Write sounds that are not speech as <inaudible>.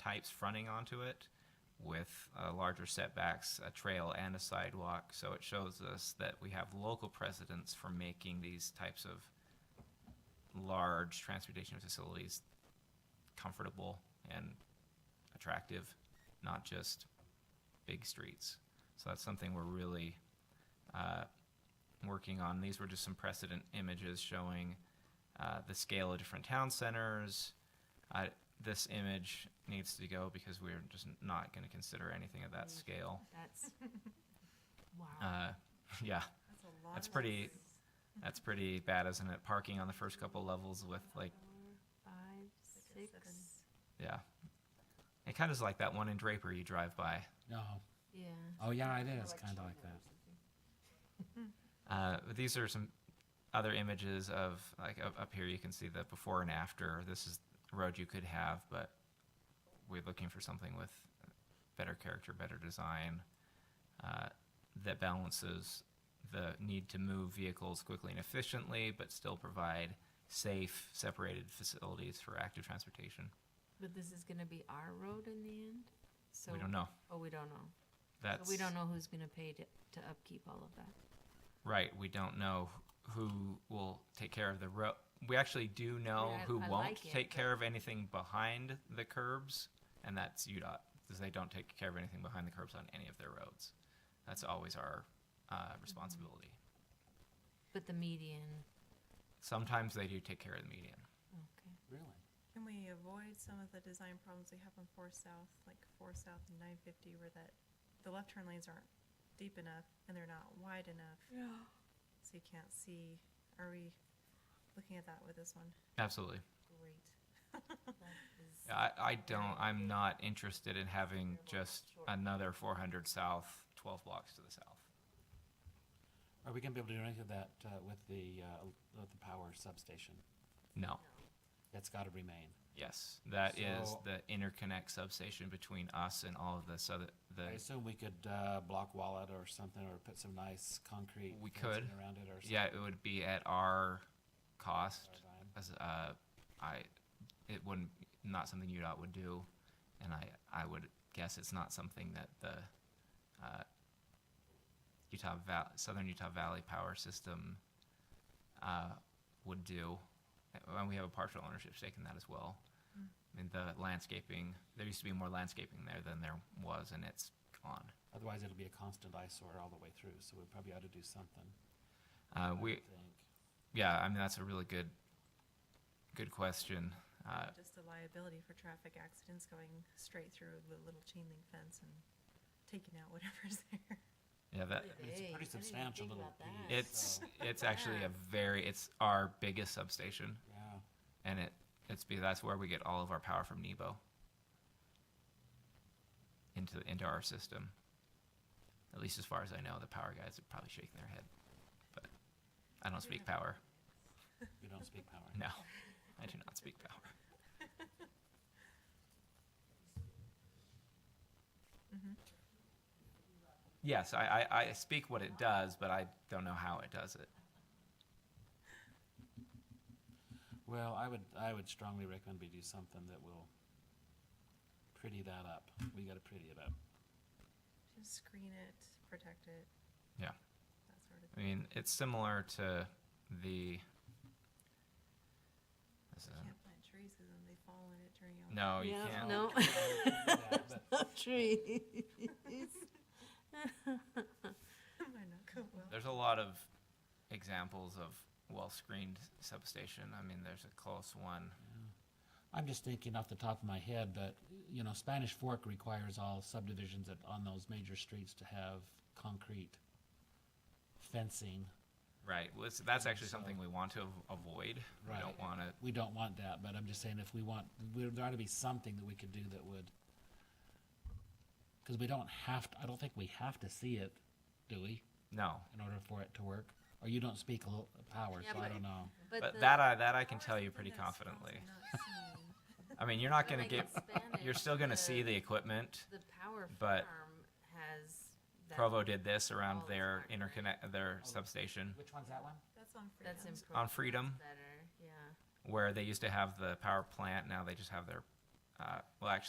types fronting onto it with uh, larger setbacks, a trail and a sidewalk. So it shows us that we have local precedents for making these types of large transportation facilities comfortable and attractive, not just big streets. So that's something we're really uh, working on. These were just some precedent images showing uh, the scale of different town centers. Uh, this image needs to go because we're just not going to consider anything of that scale. <laughs> That's, wow. Uh, <laughs> yeah, That's a lot that's of pretty- space. that's pretty bad, isn't it? Parking on the first couple levels with like, Five, six, yeah. It kind of is like that one in Draper you drive by. No. yeah. Oh, yeah, it is kind of like that. Uh, but these are some other images of like up, up here. You can see the before and after. This is a road you could have, but we're looking for something with better character, better design uh, that balances the need to move vehicles quickly and efficiently, but still provide safe, separated facilities for active transportation. But this is gonna be our road in the end? So we don't know. Oh, we don't know. That's So we don't know who's gonna pay to, to upkeep all of that. right. We don't know who will take care of the road. We actually do know I- who I won't like it, take but- care of anything behind the curbs, and that's UDOT, because they don't take care of anything behind the curbs on any of their roads. That's always our uh, Mm-hmm. responsibility. But the median, Sometimes they do take care of the median. okay. Really? Can we avoid some of the design problems we have on four south, like four south and nine fifty, where that, the left turn lanes aren't deep enough and they're not wide enough, so you can't see, are we looking at that with this one? Absolutely. <laughs> Great. Yeah, I, I don't, I'm not interested in having just another 400 south, 12 blocks to the south. Are we gonna be able to do anything with that, uh, with the, uh, with the power substation? No. That's gotta remain. Yes, that is So- the interconnect substation between us and all of the southern, the, I assume we could, uh, block wall it or something, or put some nice concrete We fencing could. around it or something. yeah, it would be at our cost. Design. As, uh, I, it wouldn't, not something UDOT would do, and I, I would guess it's not something that the, uh, Utah Val, Southern Utah Valley Power System, uh, would do. And we have a partial ownership stake in that as well. I mean, the landscaping, there used to be more landscaping there than there was, and it's gone. Otherwise, it'll be a constant eyesore all the way through, so we probably ought to do something, Uh, I we, would think. yeah, I mean, that's a really good, good question. Uh, Just the liability for traffic accidents going straight through the little chain link fence and taking out whatever's <laughs> there. yeah, that, I mean, it's a pretty substantial little piece. <laughs> It's it's actually a very it's our biggest substation, Yeah, and it it's be that's where we get all of our power from Nebo into into our system. At least as far as I know, the power guys are probably shaking their head, but I don't speak power. you don't speak power. No, I do not speak power. Yes, I, I, I speak what it does, but I don't know how it does it. Well, I would, I would strongly recommend we do something that will pretty that up. We gotta pretty it up. Just screen it, protect it. Yeah. That sort of I thing. mean, it's similar to the. This You isn't, Can't plant trees because then they fall in it during. <laughs> your- uh, no, you Yeah, can't. <laughs> No. Trees. <laughs> Might not go well. There's a lot of examples of well-screened substation. I mean, there's a close one. I'm just thinking off the top of my head, but, you know, Spanish Fork requires all subdivisions that, on those major streets to have concrete fencing. Right. Well, it's, that's actually something we want to av- avoid. We don't Right. want to. We don't want that, but I'm just saying if we want, we- there ought to be something that we could do that would, because we don't have, to- I don't think we have to see it, do we, No. in order for it to work? Or you don't speak a little power, Yeah, so I but- don't know. But the- that I that I can Or tell you something pretty that's also confidently. <laughs> not seen. I mean, you're not But going to like get. in <laughs> Spanish, You're still going to see the equipment. The power but farm has. that- Provo did this around all the their smart grid. interconnect their substation Which one's that one? That's on Freedom. That's improved. on Freedom. Better, yeah. where they used to have the power plant, now they just have their, uh, well, actually,